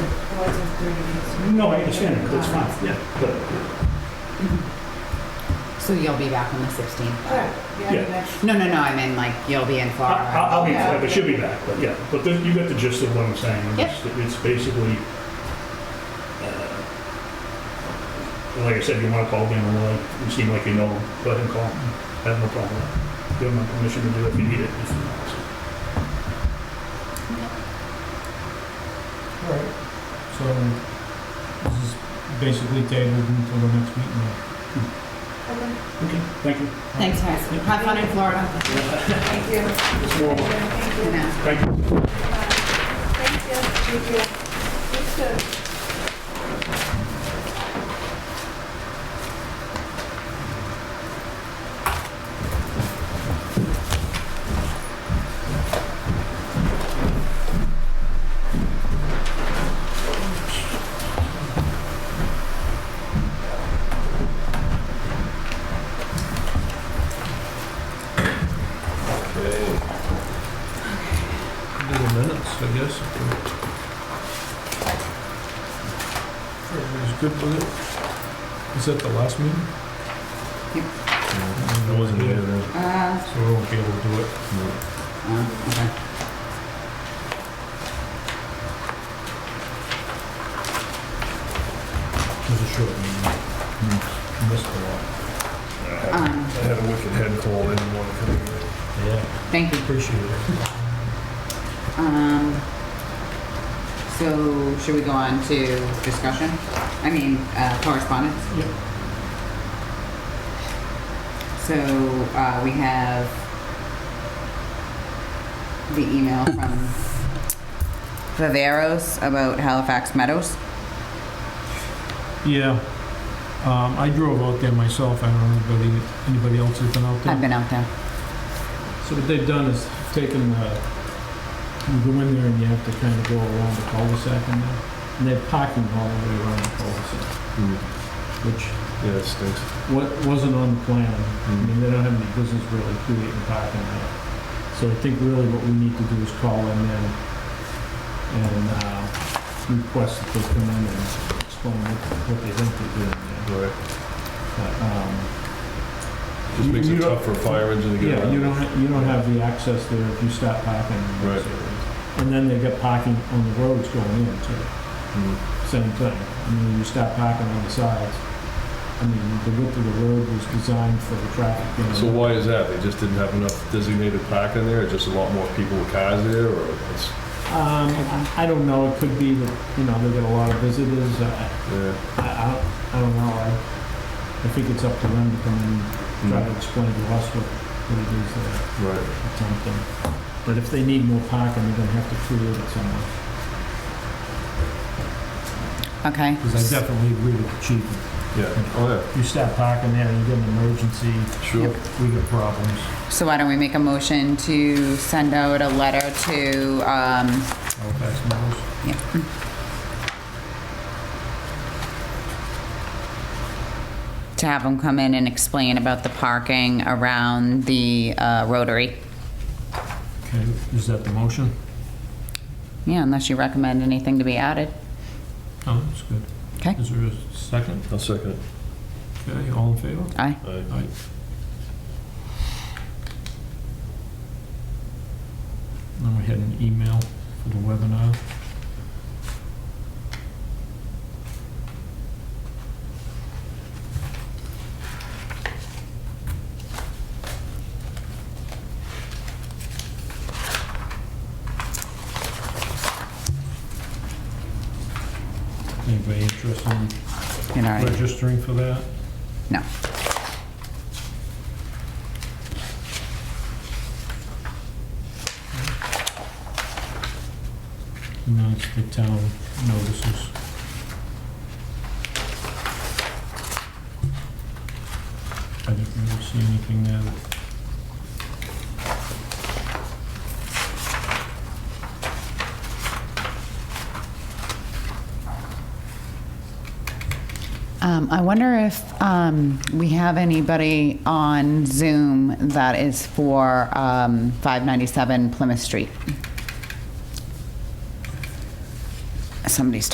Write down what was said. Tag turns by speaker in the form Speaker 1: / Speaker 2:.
Speaker 1: what's included is.
Speaker 2: No, I understand, it. that's fine, yeah, but,
Speaker 3: So you'll be back on the 16th?
Speaker 1: Right, yeah,
Speaker 2: Yeah.
Speaker 1: that's-
Speaker 3: No, no, no, I mean, like, you'll be in
Speaker 2: I-
Speaker 4: Uh,
Speaker 3: Florida.
Speaker 2: I- I'll be, I should be back, but yeah, but then you got the gist of what I'm saying.
Speaker 3: Yep.
Speaker 2: It's- It's basically, uh, like I said, you want to call Dan Malloy, you seem like you know him, go ahead and call him, I have no problem. Give him my permission to do it if you need it. if you want.
Speaker 4: All right, so this is basically tabled until the next meeting.
Speaker 1: Okay,
Speaker 2: Okay, thank you.
Speaker 3: Thanks, guys. Have fun in Florida.
Speaker 1: Thank you.
Speaker 2: It's more,
Speaker 1: Thank you.
Speaker 3: You
Speaker 1: Thank you.
Speaker 3: know.
Speaker 2: thank you.
Speaker 1: Thank you. Thank you.
Speaker 4: Do the minutes, I guess. if we- Everybody's good with it? Is that the last meeting?
Speaker 3: Yep.
Speaker 4: I wasn't here then.
Speaker 3: Uh,
Speaker 4: So we won't be able to do it.
Speaker 3: oh, okay.
Speaker 4: It was a short meeting. Missed a lot.
Speaker 3: Um,
Speaker 5: I had a wicked head cold, I didn't want to come here.
Speaker 4: Yeah,
Speaker 3: Thank you.
Speaker 4: appreciate it.
Speaker 3: Um, so should we go on to discussion? I mean, uh, correspondence?
Speaker 4: Yep.
Speaker 3: So, uh, we have the email from Viveros about Halifax Meadows.
Speaker 4: Yeah, um, I drove out there myself, I don't know if anybody, anybody else has been out there.
Speaker 3: I've been out there.
Speaker 4: So what they've done is taken, uh, you go in there and you have to kind of go around the cul-de-sac in there, and they're parking all the way around the cul-de-sac, which
Speaker 5: Mm. Yeah, it stinks.
Speaker 4: wa- wasn't on the plan. I mean, they don't have any business really creating parking there. So I think really what we need to do is call them in and uh, request that they come in and explain what what they think they're doing there.
Speaker 5: Right.
Speaker 4: But, um,
Speaker 5: Just
Speaker 4: You-
Speaker 5: makes
Speaker 4: you
Speaker 5: it
Speaker 4: don't-
Speaker 5: tough for a fire engine to get
Speaker 4: Yeah,
Speaker 5: around.
Speaker 4: you don't, ha- you don't have the access there if you stop parking. in those
Speaker 5: Right.
Speaker 4: areas. And then they get parking on the roads going in too,
Speaker 5: Mm.
Speaker 4: same thing. I mean, you stop parking on the sides. I mean, the width of the road was designed for the traffic. you know.
Speaker 5: So why is that? They just didn't have enough designated parking there, or just a lot more people with cars there, or it's,
Speaker 4: Um, I- I don't know, it could be that, you know, they get a lot of visitors, I,
Speaker 5: yeah.
Speaker 4: I, I don't- I don't know. I, I think it's up to them to come and
Speaker 5: Mm.
Speaker 4: try to explain to us what, what it is they're
Speaker 5: Right.
Speaker 4: attempting. But if they need more parking, they're gonna have to create it somewhere.
Speaker 3: Okay.
Speaker 4: Because I definitely agree with the chief.
Speaker 5: Yeah, oh
Speaker 4: If you stop parking there, you get an emergency,
Speaker 5: yeah, sure.
Speaker 4: we get problems.
Speaker 3: So why don't we make a motion to send out a letter to, um,
Speaker 4: Halifax Meadows.
Speaker 3: to have them come in and explain about the parking around the uh, Rotary.
Speaker 4: Okay, is that the motion?
Speaker 3: Yeah, unless you recommend anything to be added.
Speaker 4: Oh, that's good.
Speaker 3: Okay.
Speaker 4: Is there a second?
Speaker 5: I'll second it.
Speaker 4: Okay, all in favor?
Speaker 3: Aye.
Speaker 5: Aye.
Speaker 4: Aye. Then we had an email for the webinar. Anybody interested in
Speaker 3: You know, right?
Speaker 4: registering for that?
Speaker 3: no.
Speaker 4: No, it's the town notices. I didn't really see anything there. that-
Speaker 3: Um, I wonder if um, we have anybody on Zoom that is for um, 597 Plymouth Street. Somebody's